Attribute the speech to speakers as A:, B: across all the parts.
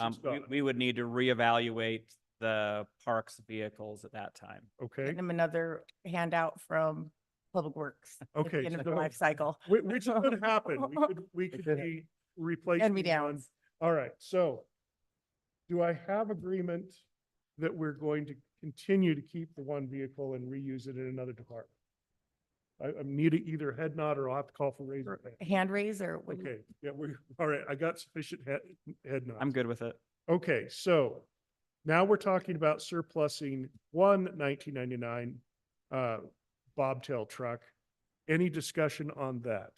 A: Um,
B: It's
A: we,
B: done.
A: we would need to reevaluate the parks vehicles at that time.
B: Okay,
C: Get them another handout from Public Works. at the
B: Okay,
C: End of the
B: so-
C: life cycle.
B: Whi- which could happen. We could, we
D: It
B: could
D: could
B: be replacing.
C: Hand me
B: one.
C: downs.
B: All right, so do I have agreement that we're going to continue to keep the one vehicle and reuse it in another department? I, I need a- either a head nod or I'll have to call for raise. of hand.
C: Hand raise or what do you-
B: Okay, yeah, we, all right, I got sufficient head, head nods.
A: I'm good with it.
B: Okay, so now we're talking about surplusing one 1999 uh, bobtail truck. Any discussion on that?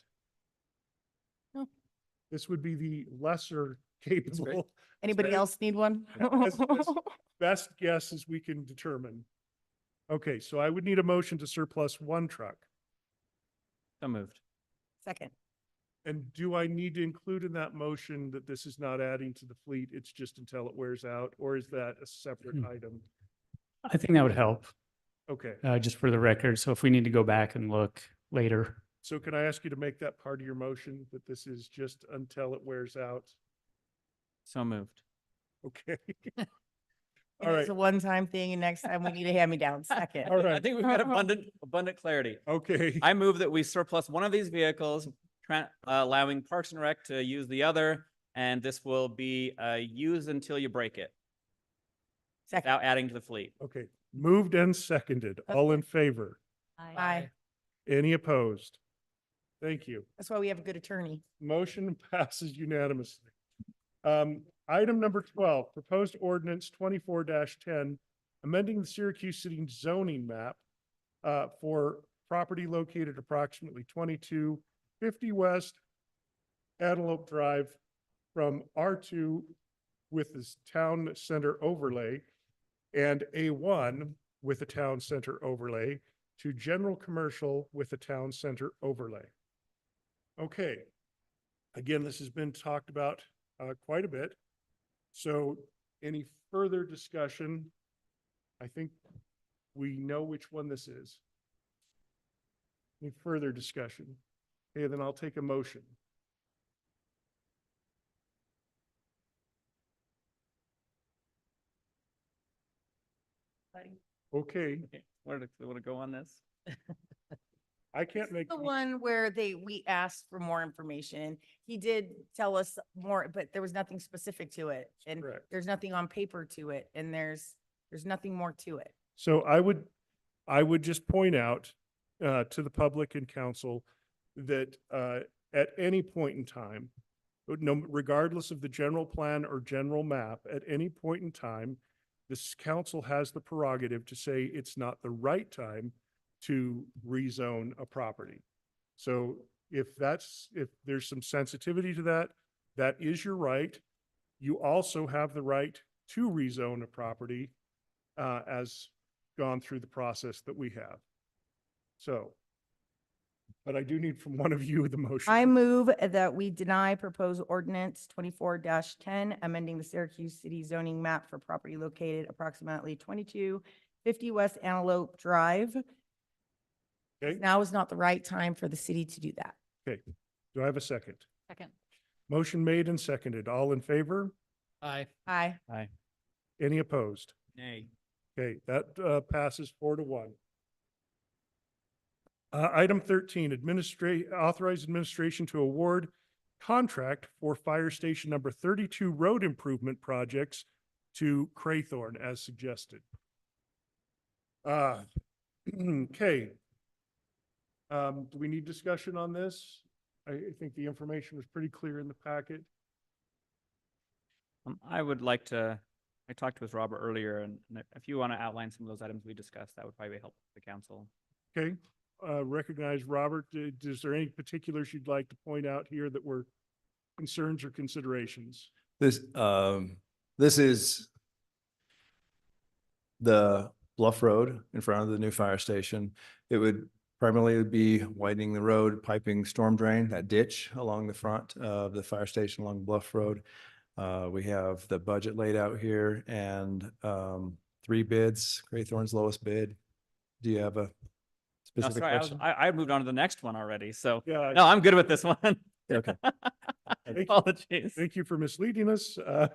C: No.
B: This would be the lesser capable,
C: anybody
B: Sorry.
C: else need one?
B: That's- that's- best guess as we can determine. Okay, so I would need a motion to surplus one truck.
A: So moved.
C: Second,
B: And do I need to include in that motion that this is not adding to the fleet, it's just until it wears out? Or is that a separate
E: Hmm.
B: item?
E: I think that would help,
B: Okay.
E: uh, just for the record. So if we need to go back and look later,
B: So can I ask you to make that part of your motion, that this is just until it wears out?
A: So moved.
B: Okay. All
C: And
B: right,
C: it's a one-time thing and next time we need a hand-me-down, second.
B: all
A: I
B: right,
A: think we've got abundant, abundant clarity.
B: okay.
A: I move that we surplus one of these vehicles, tran- allowing Parks and Rec to use the other, and this will be, uh, use until you break it,
C: Second,
A: without adding to the fleet.
B: Okay, moved and seconded, all in favor,
C: aye.
B: any opposed? Thank you.
C: That's why we have a good attorney.
B: Motion passes unanimously. Um, item number twelve, proposed ordinance twenty-four ten, amending the Syracuse City zoning map uh, for property located approximately twenty-two fifty west Antelope Drive from R two with this town center overlay and A one with a town center overlay to general commercial with a town center overlay. Okay, Again, this has been talked about uh, quite a bit. So any further discussion? I think we know which one this is. Any further discussion? Okay, then I'll take a motion. Okay,
A: Where to, where to go on this?
B: I can't make.
C: The one where they, we asked for more information. He did tell us more, but there was nothing specific to it. And
B: Correct.
C: there's nothing on paper to it and there's, there's nothing more to it.
B: So I would, I would just point out uh, to the public and council that uh, at any point in time, but no- regardless of the general plan or general map, at any point in time, this council has the prerogative to say it's not the right time to rezone a property. So if that's, if there's some sensitivity to that, that is your right. You also have the right to rezone a property uh, as gone through the process that we have. So, but I do need from one of you the motion.
C: I move that we deny proposed ordinance twenty-four ten, amending the Syracuse City zoning map for property located approximately twenty-two fifty West Antelope Drive.
B: Okay.
C: Now is not the right time for the city to do that.
B: Do I have a second?
F: Second.
B: Motion made and seconded. All in favor?
D: Aye.
C: Aye.
B: Any opposed?
A: Nay.
B: Okay, that uh, passes four to one. Uh, Item thirteen, administrate, authorize administration to award contract for fire station number thirty-two road improvement projects to Craythorne as suggested. Uh, Okay. Um, Do we need discussion on this? I I think the information was pretty clear in the packet.
A: Um, I would like to, I talked with Robert earlier, and and if you want to outline some of those items we discussed, that would probably help the council.
B: Okay, uh, recognize Robert. Uh, Is there any particulars you'd like to point out here that were concerns or considerations?
G: This, um, this is the Bluff Road in front of the new fire station. It would primarily be widening the road, piping storm drain, that ditch along the front of the fire station along Bluff Road. Uh, we have the budget laid out here and, um, three bids, Graythorn's lowest bid. Do you have a
A: No,
G: specific
A: sorry, I was,
G: question?
A: I, I moved on to the next one already, so,
B: Yeah,
A: no, I'm good with this one.
G: Okay.
A: Apologies.
B: Thank you for misleading us. Uh,